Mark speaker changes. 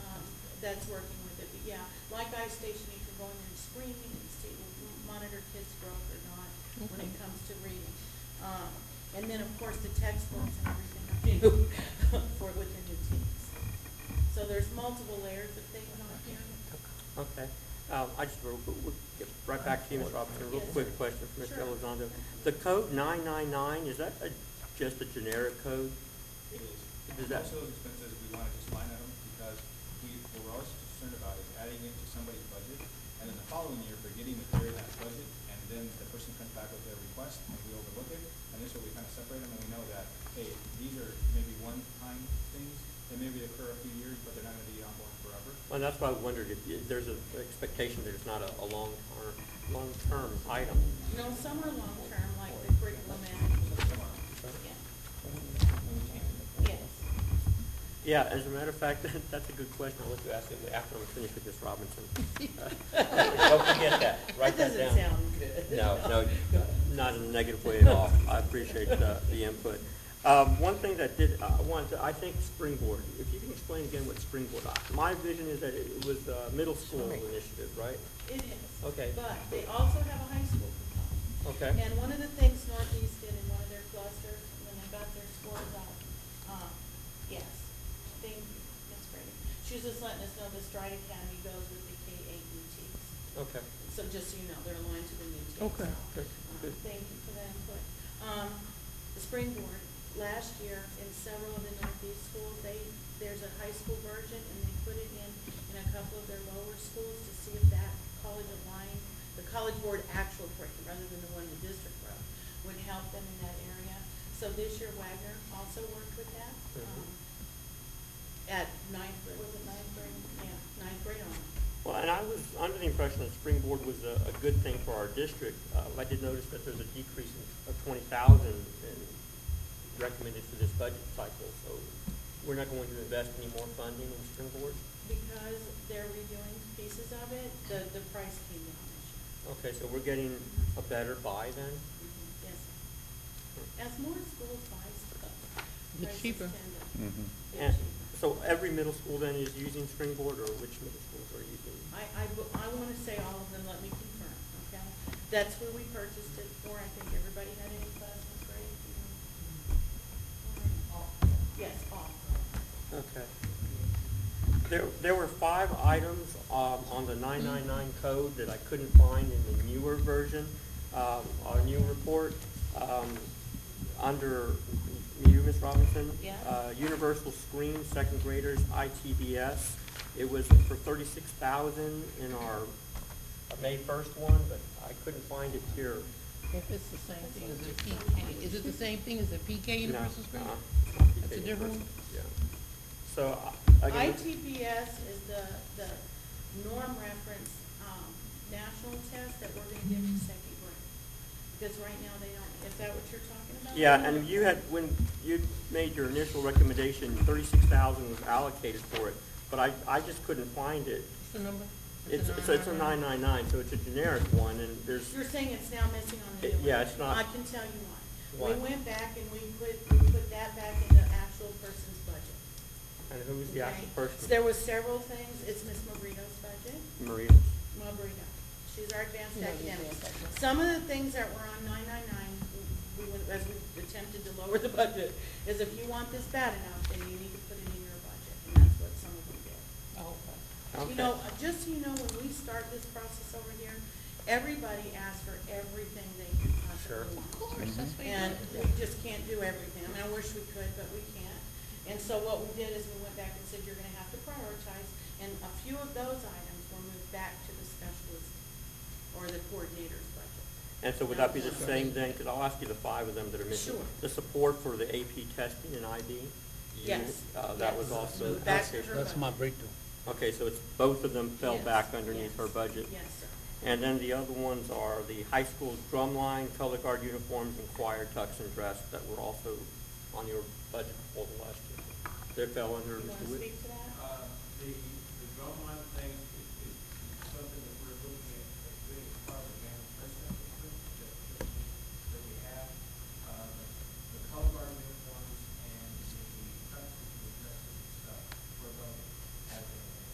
Speaker 1: um, that's working with it, but yeah, like ice station, you can go in there and screen and see, monitor kids' growth or not when it
Speaker 2: Okay.
Speaker 1: comes to reading. Um, and then, of course, the textbooks and everything are new for, with the new teams. So there's multiple layers of things on here.
Speaker 3: Okay, Um, I just, real quick- we'll get right back to you, Ms. Robinson, real
Speaker 1: Yes.
Speaker 3: quick question for Mr.
Speaker 1: Sure.
Speaker 3: Elizondo. The code nine-nine-nine, is that a- just a generic code?
Speaker 4: It is.
Speaker 3: Does that-
Speaker 4: Most of those expenses, we want to just line item because we, what we're always concerned about is adding it to somebody's budget and then the following year forgetting that they're in that budget and then the person comes back with their request and we overlook it. And this way we kind of separate them and we know that, hey, these are maybe one-time things that maybe occur a few years, but they're not going to be ongoing forever.
Speaker 3: Well, that's why I wondered if you- there's an expectation that it's not a, a long-term, long-term item.
Speaker 1: No, some are long-term, like the curriculum management.
Speaker 4: Come on.
Speaker 1: Yeah.
Speaker 4: When we change it.
Speaker 1: Yes.
Speaker 3: Yeah, as a matter of fact, that's a good question, I'll let you ask it after I'm finished with Ms. Robinson. Don't forget that, write that down.
Speaker 1: doesn't sound good.
Speaker 3: No, no, not in a negative way at all. I appreciate uh, the input. Um, One thing that did, I wanted to, I think Springboard, if you can explain again what Springboard, my vision is that it was a middle school initiative, right?
Speaker 1: It is.
Speaker 3: Okay.
Speaker 1: But they also have a high school component.
Speaker 3: Okay.
Speaker 1: And one of the things Northeast did in one of their clusters, when they got their scores up, um, yes, thank you, Ms. Brady. She was just letting us know the Stride Academy goes with the K eight new teams.
Speaker 3: Okay.
Speaker 1: So just so you know, they're aligned to the new teams.
Speaker 2: Okay,
Speaker 1: now.
Speaker 3: good,
Speaker 1: Uh,
Speaker 3: good.
Speaker 1: Thank you for that input. Um, the Springboard, last year, in several of the Northeast schools, they, there's a high school version, and they put it in, in a couple of their lower schools to see if that college aligned, the college board actual curriculum, rather than the one the district wrote, would help them in that area. So this year Wagner also worked with that,
Speaker 3: Mhm.
Speaker 1: um, at ninth, grade- was it ninth grade? Yeah, ninth grade on.
Speaker 3: Well, and I was under the impression that Springboard was a, a good thing for our district. Uh, I did notice that there's a decrease in- of twenty thousand recommended for this budget cycle, so we're not going to invest any more funding in Springboard?
Speaker 1: Because they're redoing pieces of it, the, the price came down this year.
Speaker 3: Okay, so we're getting a better buy then?
Speaker 1: Yes. As more schools buy stuff.
Speaker 2: Get
Speaker 1: prices
Speaker 2: cheaper.
Speaker 1: tend to get
Speaker 3: And
Speaker 1: cheaper.
Speaker 3: so every middle school then is using Springboard, or which middle schools are using?
Speaker 1: I, I, bu- I wanna say all of them, let me confirm, okay? That's where we purchased it for, I think everybody had any classes, right? Yes, all.
Speaker 3: Okay. There, there were five items, um, on the nine-nine-nine code that I couldn't find in the newer version, um, our new report, um, under you, Ms. Robinson.
Speaker 1: Yeah.
Speaker 3: Uh, universal screen, second graders, ITBS. It was for thirty-six thousand in our May first one, but I couldn't find it here.
Speaker 2: If it's the same thing as a PK, is it the same thing as a PK
Speaker 3: No,
Speaker 2: universal screen?
Speaker 3: uh-uh.
Speaker 2: That's a
Speaker 3: PK
Speaker 2: different
Speaker 3: universal,
Speaker 2: one?
Speaker 3: Yeah. So, I- again.
Speaker 1: ITPS is the, the norm reference, um, national test that we're gonna give to second grade. Because right now they don't, is that what you're talking about?
Speaker 3: Yeah, and you had, when you made your initial recommendation, thirty-six thousand was allocated for it, but I, I just couldn't find it.
Speaker 2: What's the number?
Speaker 3: It's, so it's a nine-nine-nine, so it's a generic one, and there's,
Speaker 1: You're saying it's now missing on the
Speaker 3: It-
Speaker 1: new one?
Speaker 3: yeah, it's not-
Speaker 1: I can tell you why.
Speaker 3: Why?
Speaker 1: We went back and we put, we put that back in the actual person's budget.
Speaker 3: and who's the
Speaker 1: okay?
Speaker 3: actual
Speaker 1: So
Speaker 3: person?
Speaker 1: There was several things, it's Miss Marino's budget,
Speaker 3: Maria.
Speaker 1: Marino, she's our advanced
Speaker 2: Yeah, the
Speaker 1: academic.
Speaker 2: advanced academic.
Speaker 1: Some of the things that were on nine-nine-nine, we went, as we attempted to lower the budget, is if you want this bad enough, then you need to put it in your budget, and that's what some of them did.
Speaker 2: Oh, okay.
Speaker 3: Okay.
Speaker 1: You know, uh, just so you know, when we start this process over here, everybody asks for everything they can
Speaker 3: Sure.
Speaker 1: possibly
Speaker 2: Of
Speaker 1: want.
Speaker 2: course, that's what you
Speaker 1: And
Speaker 2: do.
Speaker 1: we just can't do everything. I mean, I wish we could, but we can't. And so what we did is we went back and said, you're gonna have to prioritize, and a few of those items were moved back to the specialist or the coordinator's budget.
Speaker 3: And so would that be the same then, because I'll ask you the five of them that are missing.
Speaker 1: Sure.
Speaker 3: The support for the AP testing and ID?
Speaker 1: Yes.
Speaker 3: Uh, that was
Speaker 1: Yes.
Speaker 3: also
Speaker 1: Moved back to
Speaker 3: allocated.
Speaker 1: her
Speaker 5: That's my
Speaker 1: budget.
Speaker 5: breakthrough.
Speaker 3: Okay, so it's, both of them fell
Speaker 1: Yes.
Speaker 3: back underneath her
Speaker 1: Yes.
Speaker 3: budget.
Speaker 1: Yes, sir.
Speaker 3: And then the other ones are the high school drumline, color guard uniforms, and choir tux and dress that were also on your budget proposal last year. They fell under,
Speaker 1: You wanna speak to